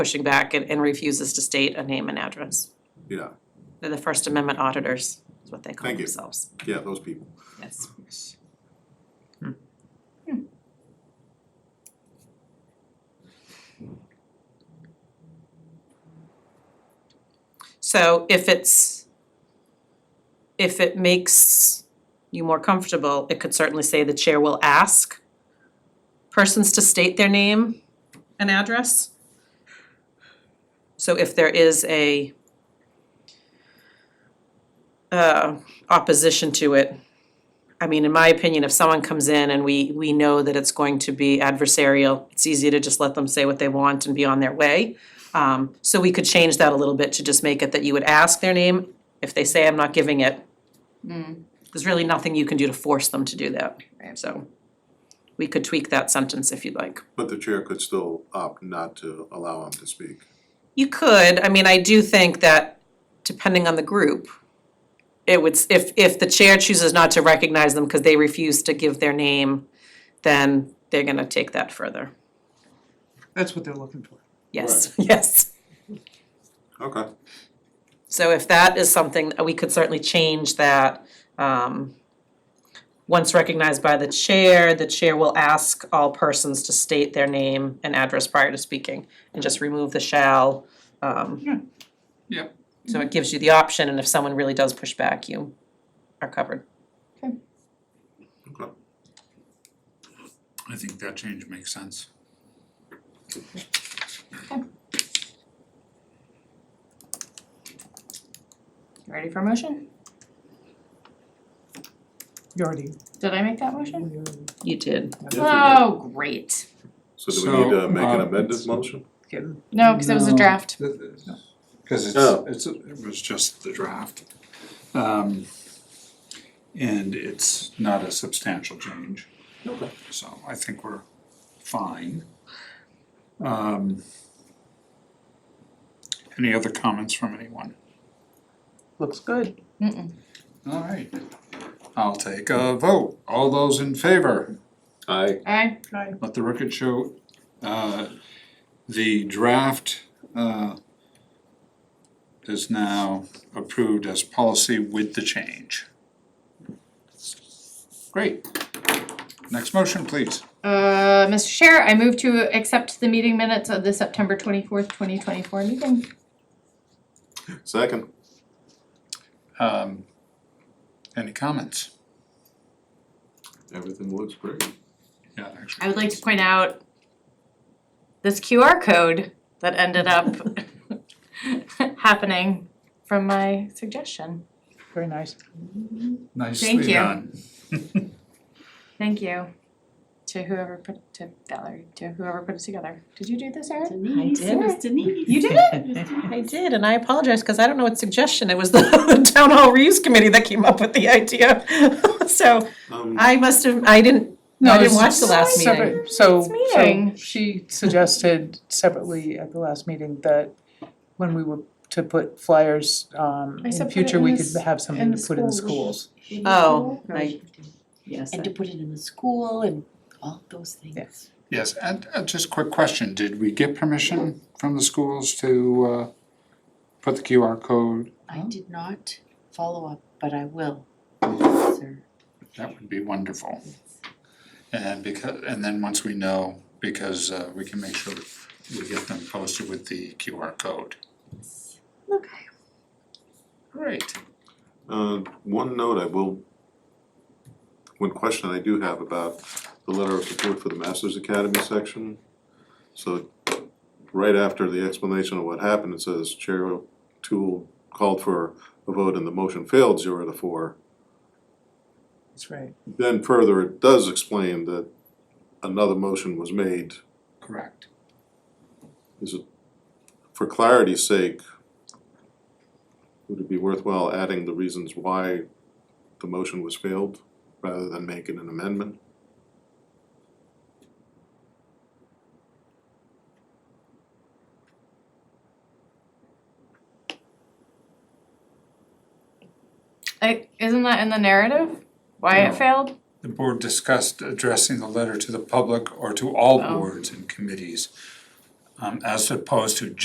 pushing back and, and refuses to state a name and address. Yeah, They're the First Amendment auditors, is what they call Thank you. themselves. yeah, those people. Yes. Hmm. So if it's, if it makes you more comfortable, it could certainly say the chair will ask persons to state their name and address. So if there is a uh opposition to it, I mean, in my opinion, if someone comes in and we, we know that it's going to be adversarial, it's easy to just let them say what they want and be on their way. Um, so we could change that a little bit to just make it that you would ask their name, if they say I'm not giving it. There's really nothing you can do to force them to do that, Right. so we could tweak that sentence if you'd like. But the chair could still opt not to allow them to speak. You could, I mean, I do think that depending on the group, it would, s- if if the chair chooses not to recognize them because they refuse to give their name, then they're gonna take that further. That's what they're looking for. Yes, yes. Okay, So if that is something, we could certainly change that. um, Once recognized by the chair, the chair will ask all persons to state their name and address prior to speaking and just remove the shall. um, Yeah. So it gives you the option, and if someone really does push back, you are covered. okay. I think that change makes sense. You ready for a motion? You already, Did I make that motion? you already- You did. Oh, great. So do we need to So, make an uh, amended motion? No, because it was a No. draft. Cause Oh. it's, it's, it was just the draft. Um, and it's not a substantial change, Okay. so I think we're fine. Um, any other comments from anyone? looks good. Mm-mm. Alright, I'll take a vote. All those in favor? Aye, Aye. Right. Let the record show, uh, the draft, uh, is now approved as policy with the change. Great. Next motion, please. Uh, Mr. Chair, I move to accept the meeting minutes of the September twenty-fourth, twenty twenty-four meeting. second, Um, any comments? everything looks great. Yeah, I actually. would like to point out this QR code that ended up happening from my suggestion. Very nice. thank Nicely you. done. Thank you to whoever put, to Valerie, to whoever put it together. Did you do this, Erin? Denise, I did. it was Denise. You did it? I did, and I apologize, because I don't know what suggestion, it was the Town Hall Reuse Committee that came up with the idea. So Um, I must have, I didn't, I didn't watch the last meeting. Separate- So, Last so meeting. she suggested separately at the last meeting that when we were to put flyers, um, I said in put future, it in we the s- could have in something the to put in the schools. schools. Oh, I- Yes. And to put it in the school and all those things. Yes, and uh, just quick question, did we get permission from the schools to uh put the QR code? Oh. I did not follow up, but I will, sir. That would be wonderful. And because, and then once we know, because uh we can make sure we get them posted with the QR code. Okay. Great. Uh, one note I will, one question I do have about the letter of support for the Masters Academy section. So, right after the explanation of what happened, it says Chair Tool called for a vote and the motion failed zero to four. That's right. Then further, it does explain that another motion was made. Correct. Is it, for clarity's sake, would it be worthwhile adding the reasons why the motion was failed rather than making an amendment? Like, isn't that in the narrative? Why No. it failed? The board discussed addressing the letter to the public or to all Oh. boards and committees. um, as opposed to